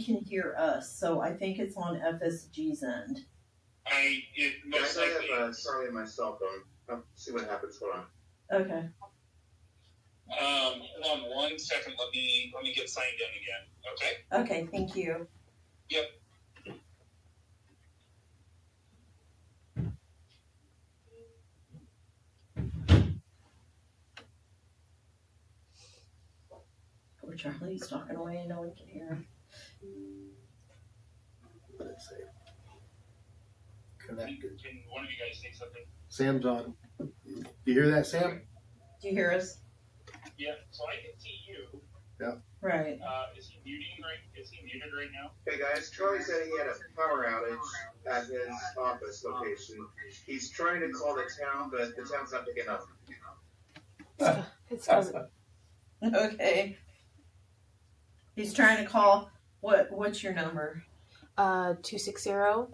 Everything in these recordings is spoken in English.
can hear us, so I think it's on FSG's end. I, it most Yes, I likely, have uh, Charlie and my cell phone. I'll see what happens. Hold on. Okay. um, hold on one second, let me, let me get signed in again, okay? Okay, thank you. Poor Charlie, he's talking away and no one can hear him. Let's see. Connected. Can one of you guys say something? Sam's on. Do you hear that, Sam? Do you hear us? Yeah, so I can see you, Right. uh, is he muting right, is he muted right now? Hey guys, Charlie said he had a power outage at his office location. He's trying to call the town, but the town's not picking up. It's because Okay. He's trying to call. What? What's your number? uh two six zero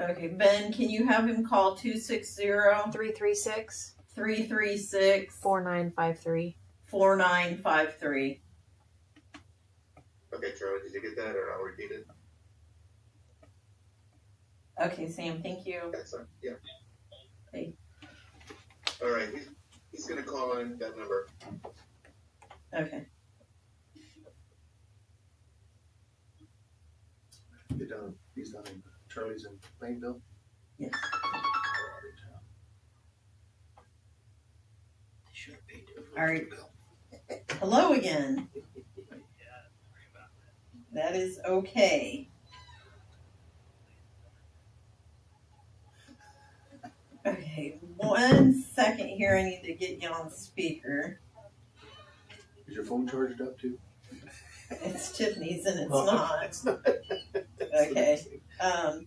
Okay, Ben, can you have him call 260 three three six 336 four nine five three. 4953? Okay, Charlie, did you get that, or I'll repeat it? Okay, Sam, thank you. That's on. Yeah. Hey. All right. He's, he's gonna call in that number. Okay. Get down. He's down. in- Charlie's in Plainville. Yes. All right. Hello again. That is okay. Okay, one second here. I need to get you on speaker. Is your phone charged up too? It's Tiffany's and it's not. It's not. Okay. Um,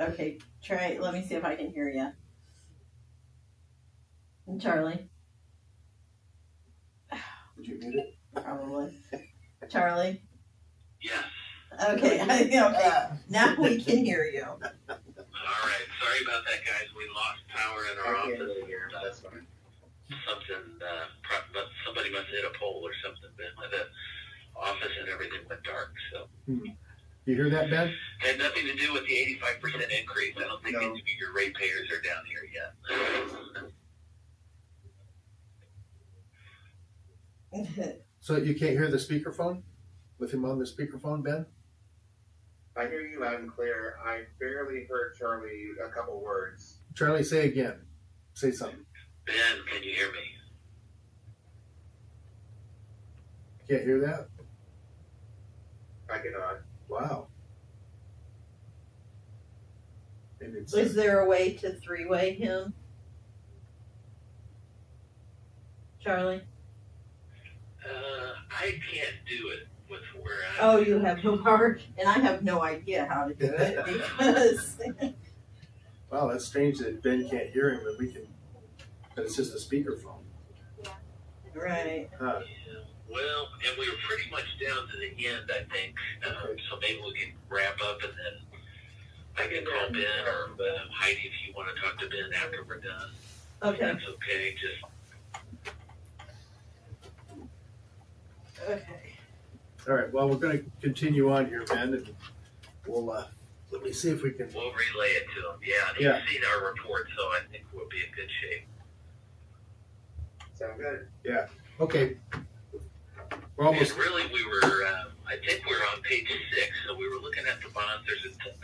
okay, try. Let me see if I can hear you. Charlie, Did you mute it? probably. Charlie. Yes, Okay. okay. Now we can hear you. alright, sorry about that, guys, we lost power in I can't really hear. But that's fine. something, uh, pro- but somebody must hit a pole or something, but the office and everything went dark, so. You hear that, Ben? Had nothing to do with the eighty-five percent increase, I don't think No. any of your ratepayers are down here yet. So you can't hear the speakerphone? With him on the speakerphone, Ben? I hear you loud and clear. I barely heard Charlie a couple words. Charlie, say again. Say something. Ben, can you hear me? Can't hear that? I cannot. Wow. Maybe it's. Is there a way to three way him? Charlie? Uh, I can't do it with where I. Oh, you have no power, and I have no idea how to do it because. Wow, that's strange that Ben can't hear him, but we can. But it's just a speakerphone. right. Huh. Yeah. Well, and we were pretty much down to the end, I think, um, Okay. so maybe we can wrap up and then I can call Ben or uh, Heidi if you wanna talk to Ben after we're done. If Okay. That's okay, just, Okay. All right, well, we're going to continue on here, Ben, and we'll, uh, let me see if we can. we'll relay it to him, yeah, and Yeah. he's seen our report, so I think we'll be in good shape. Sound good? Okay. We're And almost, really, we were, uh, I think we were on page six, so we were looking at the bonds. There's a,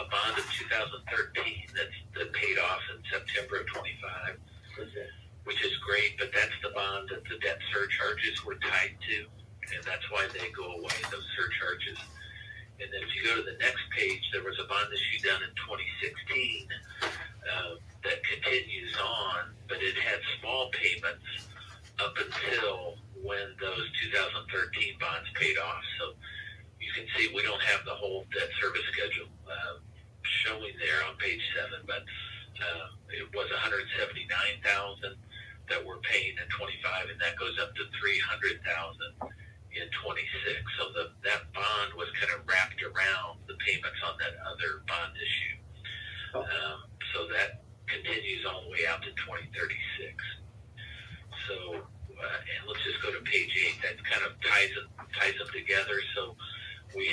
a, a bond of 2013 that's that paid off in September of 25, which is great, but that's the bond that the debt surcharges were tied to, and that's why they go away, those surcharges. And then if you go to the next page, there was a bond issue done in 2016 uh, that continues on, but it had small payments up until when those 2013 bonds paid off. So you can see we don't have the whole debt service schedule uh, showing there on page seven, but uh, it was 179,000 that we're paying in 25, and that goes up to 300,000 in 26. So the, that bond Um, uh,